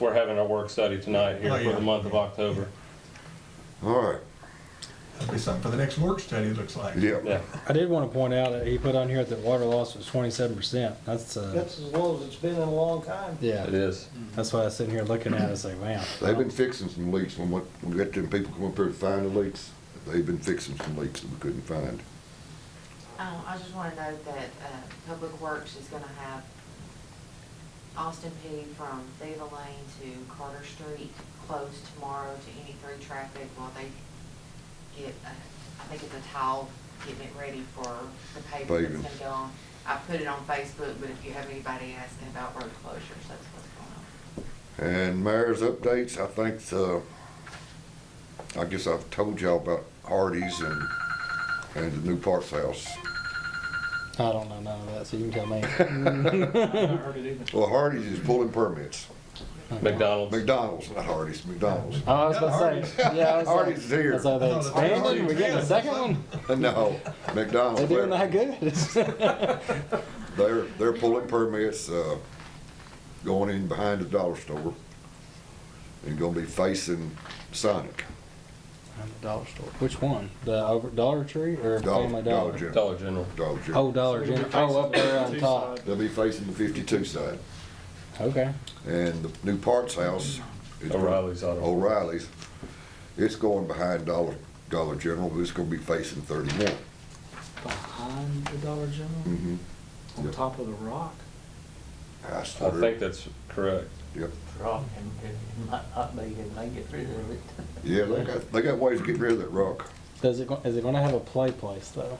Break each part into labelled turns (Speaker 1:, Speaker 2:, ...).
Speaker 1: We're having our work study tonight here
Speaker 2: Oh,
Speaker 1: for
Speaker 2: yeah.
Speaker 1: the month of October.
Speaker 3: All right,
Speaker 2: That'd be something for the next work study, it looks like.
Speaker 3: yeah.
Speaker 1: Yeah,
Speaker 4: I did want to point out that he put on here that water loss was twenty-seven percent. That's, uh,
Speaker 5: That's as low as it's been in a long time.
Speaker 4: yeah,
Speaker 1: it is.
Speaker 4: that's why I was sitting here looking at it, I was like, man.
Speaker 3: They've been fixing some leaks. When what- we got them people come up here to find the leaks, they've been fixing some leaks that we couldn't find.
Speaker 6: Um, I just want to note that, uh, Public Works is gonna have Austin P from Theta Lane to Carter Street closed tomorrow to any three traffic while they get, uh, I think it's a tile, getting it ready for the paving
Speaker 3: Paving.
Speaker 6: that's gonna go on. I put it on Facebook, but if you have anybody asking about road closures, that's what's going on.
Speaker 3: And mayor's updates, I think, uh, I guess I've told y'all about Hardee's and, and the new Parks House.
Speaker 4: I don't know none of that, so you can tell me.
Speaker 3: Well, Hardee's is pulling permits.
Speaker 2: Mm-hmm.
Speaker 1: McDonald's.
Speaker 3: McDonald's, not Hardee's, McDonald's.
Speaker 4: Oh, I was about to say, yeah. I was like-
Speaker 3: Artie's here.
Speaker 4: That's how they
Speaker 2: Oh, the
Speaker 4: expanded, we getting a
Speaker 2: Artie's
Speaker 4: second one?
Speaker 3: No, McDonald's.
Speaker 4: They're doing that good.
Speaker 3: They're, they're pulling permits, uh, going in behind the dollar store and gonna be facing Sonic.
Speaker 4: Dollar store. Which one? The over, Dollar Tree or Family Dollar?
Speaker 1: Dollar General.
Speaker 3: Dollar
Speaker 4: Oh,
Speaker 3: General.
Speaker 4: Dollar General, oh, up there on top.
Speaker 3: They'll be facing the fifty-two side.
Speaker 4: Okay.
Speaker 3: And the new parts house. is-
Speaker 1: O'Reilly's Auto.
Speaker 3: O'Reilly's. It's going behind Dollar, Dollar General, but it's gonna be facing thirty-one.
Speaker 7: Behind the Dollar General,
Speaker 1: Mm-hmm.
Speaker 3: Mhm.
Speaker 7: on
Speaker 3: Yep.
Speaker 7: top of the rock?
Speaker 3: I
Speaker 1: I
Speaker 3: swear.
Speaker 1: think that's correct.
Speaker 3: Yep.
Speaker 8: rock and it might not be, it may get rid of it.
Speaker 3: Yeah, they got, they got ways to get rid of that rock.
Speaker 4: Does it, go- is it gonna have a play place though?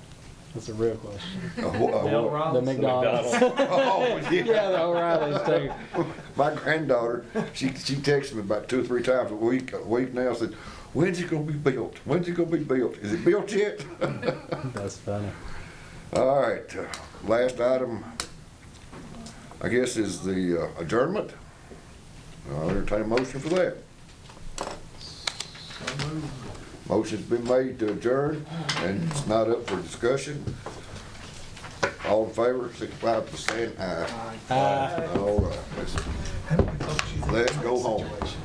Speaker 4: That's a real question.
Speaker 3: A wh- a wh-
Speaker 4: The McDonald's.
Speaker 3: Oh,
Speaker 4: Yeah, the O'Reilly's too.
Speaker 3: My granddaughter, she, she texted me about two or three times a week, a week now, said, when's it gonna be built? When's it gonna be built? Is it built yet?
Speaker 4: That's funny.
Speaker 3: All right, uh, last item, I guess, is the uh, adjournment. I'll entertain a motion for that. Motion's been made to adjourn, and it's not up for discussion. All in favor, signify by saying aye.
Speaker 4: Uh,
Speaker 3: All right, let's-
Speaker 2: How do we close you?
Speaker 3: let's go home.
Speaker 2: Situation.